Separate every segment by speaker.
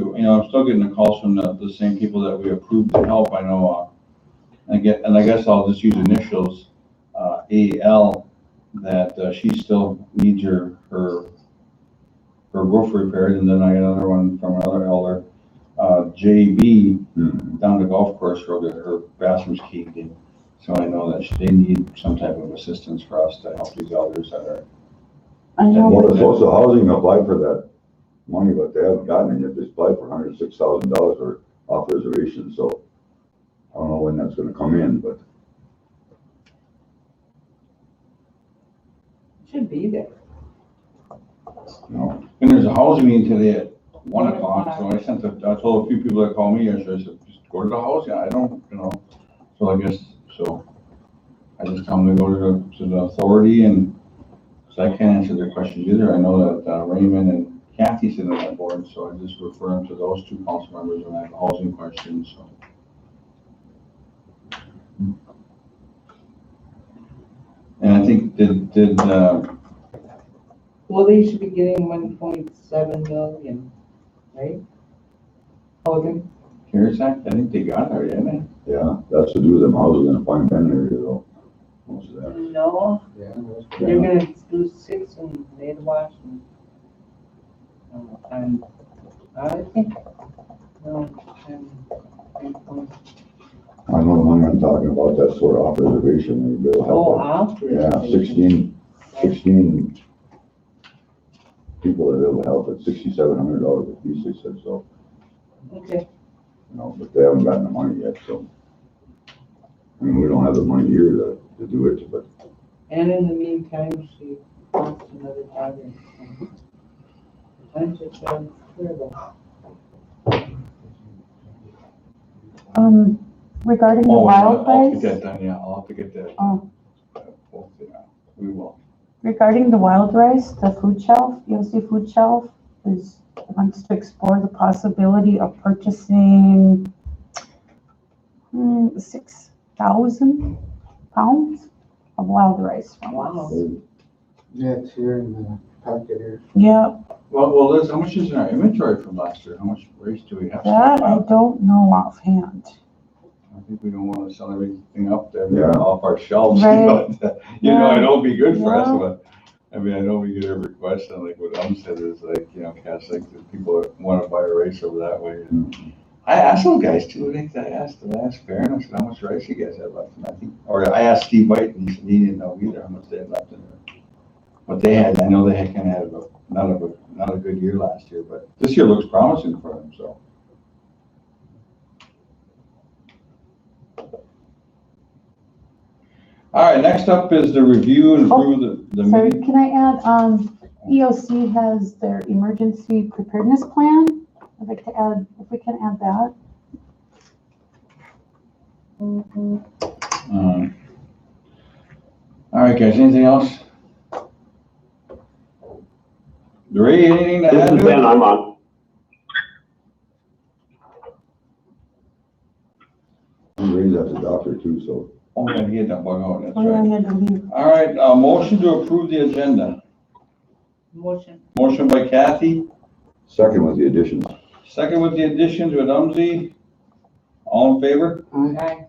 Speaker 1: I'm still getting the calls from the, the same people that we approved to help, I know, uh, and get, and I guess I'll just use initials, uh, AL, that uh, she still needs her, her, her roof repaired, and then I got another one from another elder, uh, JB, down the golf course road, that her bathroom's caved in. So I know that they need some type of assistance for us to help these elders that are,
Speaker 2: I know,
Speaker 3: Well, the social housing applied for that money, but they haven't gotten it yet. They applied for hundred and six thousand dollars for off reservation, so I don't know when that's gonna come in, but
Speaker 4: Should be there.
Speaker 3: you know,
Speaker 1: and there's a housing meeting today at one o'clock, so I sent a, I told a few people that called me yesterday, I said, just go to the housing, I don't, you know. So I guess, so I just tell them to go to the, to the authority and, because I can't answer their questions either. I know that uh, Raymond and Kathy sit on that board, so I just refer them to those two council members and I have a housing question, so. And I think, did, did, uh,
Speaker 4: Well, they should be getting one point seven million, right? Hogan,
Speaker 1: CARES Act, I think they got it already, haven't they?
Speaker 3: yeah, that's to do with them houses in the fine bend area though. Most of that.
Speaker 4: no, they're
Speaker 3: Yeah.
Speaker 4: gonna do six and they'd watch and. um, And I think, um, no, I'm,
Speaker 3: I know the one I'm talking about, that's sort of off reservation, maybe they'll
Speaker 4: oh,
Speaker 3: help. out.
Speaker 4: after.
Speaker 3: Yeah, sixteen, sixteen people that will help at sixty-seven hundred dollars a piece, they said, so,
Speaker 4: Okay,
Speaker 3: you know, but they haven't gotten the money yet, so. I mean, we don't have the money here to, to do it, but
Speaker 4: and in the meantime, she wants another target. I'm just, um, sure about.
Speaker 2: um, regarding the
Speaker 1: Oh, I'll have to
Speaker 2: wildfires,
Speaker 1: get that done, yeah, I'll have to get that.
Speaker 2: Oh.
Speaker 1: We'll figure out. We will.
Speaker 2: regarding the wild rice, the food shelf, ELC food shelf is, wants to explore the possibility of purchasing hmm, six thousand pounds of wild rice from us.
Speaker 3: they
Speaker 5: Yeah, it's here in the pocket here.
Speaker 2: Yeah,
Speaker 1: Well, well, Liz, how much is in our inventory from last year? How much race do we have?
Speaker 2: that I
Speaker 1: stockpiled?
Speaker 2: don't know offhand.
Speaker 1: I think we don't want to sell everything up there,
Speaker 3: Yeah.
Speaker 1: off our shelves,
Speaker 2: Right.
Speaker 1: but, uh, you know, I know it'd be good for us,
Speaker 2: Yeah.
Speaker 1: but, I mean, I know we get a request, and like what Elm said is like, you know, Cass, like, the people that want to buy a race over that way. and I asked those guys too, I think I asked the last fair, and I said, how much race you guys had left, and I think, or I asked Steve White, and he said he didn't know either how much they had left in there. But they had, I know they had kind of had a, not a, not a good year last year, but this year looks promising for them, so. All right, next up is the review and approve the, the
Speaker 2: Oh, Sorry,
Speaker 1: meeting.
Speaker 2: can I add, um, EOC has their emergency preparedness plan. I'd like to add, if we can add that.
Speaker 1: Um, All right, guys, anything else? Ray, anything to
Speaker 6: This
Speaker 1: add?
Speaker 6: is
Speaker 1: to
Speaker 6: Ben,
Speaker 1: it?
Speaker 6: I'm on.
Speaker 3: raised at the doctor too, so.
Speaker 1: Oh, yeah, he had that bug out, that's
Speaker 2: Oh, yeah,
Speaker 1: right.
Speaker 2: I had to leave.
Speaker 1: All right, uh, motion to approve the agenda.
Speaker 4: Motion.
Speaker 1: Motion by Kathy,
Speaker 3: Second was the additions.
Speaker 1: second with the additions with Umsey. All in favor?
Speaker 4: Aye.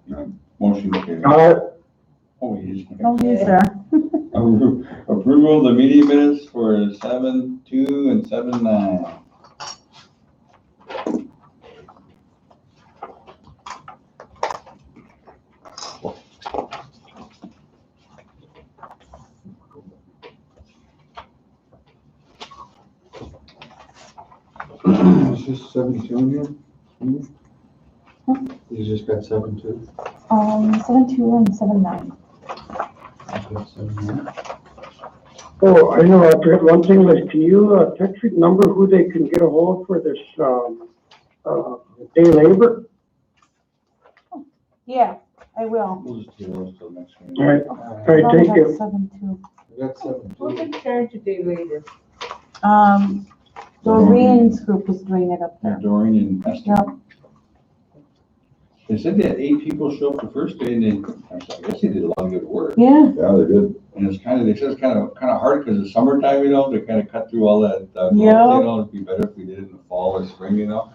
Speaker 1: Motion carried. Oh, he's.
Speaker 2: No, he's there.
Speaker 1: Approval of the meeting minutes for seven two and seven nine.
Speaker 5: It's just seven two in here. Hmm? You just got seven two.
Speaker 2: Um, seven two and seven nine.
Speaker 5: I've got seven one.
Speaker 7: Oh, I know, I forgot one thing, Liz, can you, uh, Tetrick number who they can get a hold for this, um, uh, day labor?
Speaker 2: Yeah, I will.
Speaker 1: We'll just do those till next meeting.
Speaker 7: All right,
Speaker 5: Uh,
Speaker 7: all right,
Speaker 2: Probably
Speaker 7: thank
Speaker 2: about
Speaker 7: you.
Speaker 2: Seven two.
Speaker 5: I've got seven
Speaker 4: Who's
Speaker 5: two.
Speaker 4: in charge a day later?
Speaker 2: Um, Doreen's group is doing it up
Speaker 1: Yeah,
Speaker 2: there.
Speaker 1: Doreen and Esther.
Speaker 2: Yep.
Speaker 1: They said they had eight people show up the first day and they, I was like, I guess they did a lot of good work.
Speaker 2: Yeah,
Speaker 3: Yeah, they did.
Speaker 1: And it's kind of, they said it's kind of, kind of hard because it's summertime, you know, to kind of cut through all that. uh, growth,
Speaker 2: Yeah.
Speaker 1: You know, it'd be better if we did it in the fall or spring, you know?